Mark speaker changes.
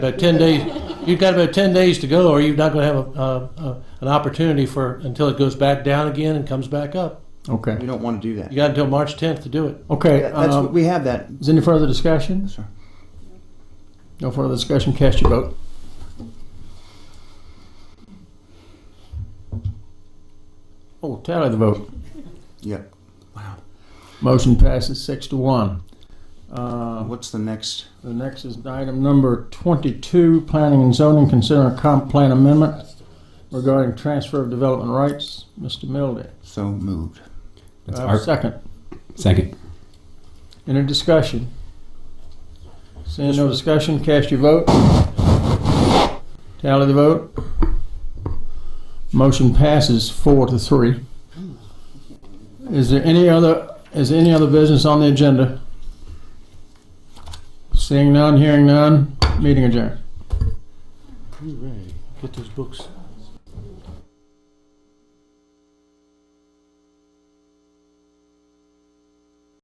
Speaker 1: About ten days, you've got about ten days to go, or you're not going to have a, a, a, an opportunity for until it goes back down again and comes back up.
Speaker 2: Okay.
Speaker 3: We don't want to do that.
Speaker 1: You got until March 10th to do it.
Speaker 2: Okay.
Speaker 3: That- That's,
Speaker 2: um,
Speaker 3: what we have that.
Speaker 2: Is there any further discussion?
Speaker 3: sir.
Speaker 2: No further discussion. Cast your vote. Oh, tally the vote.
Speaker 3: Yep.
Speaker 2: Motion passes six to one. Uh,
Speaker 3: What's the next?
Speaker 2: The next is item number 22, planning and zoning, consider a comp plan amendment regarding transfer of development rights. Mr. Milde,
Speaker 3: So moved.
Speaker 2: do
Speaker 4: That's
Speaker 2: I have a
Speaker 4: our
Speaker 2: second.
Speaker 4: second.
Speaker 2: Any discussion? Seeing no discussion, cast your vote. Tally the vote. Motion passes four to three. Is there any other, is there any other business on the agenda? Seeing none, hearing none, meeting adjourned.
Speaker 1: Hooray. Get those books.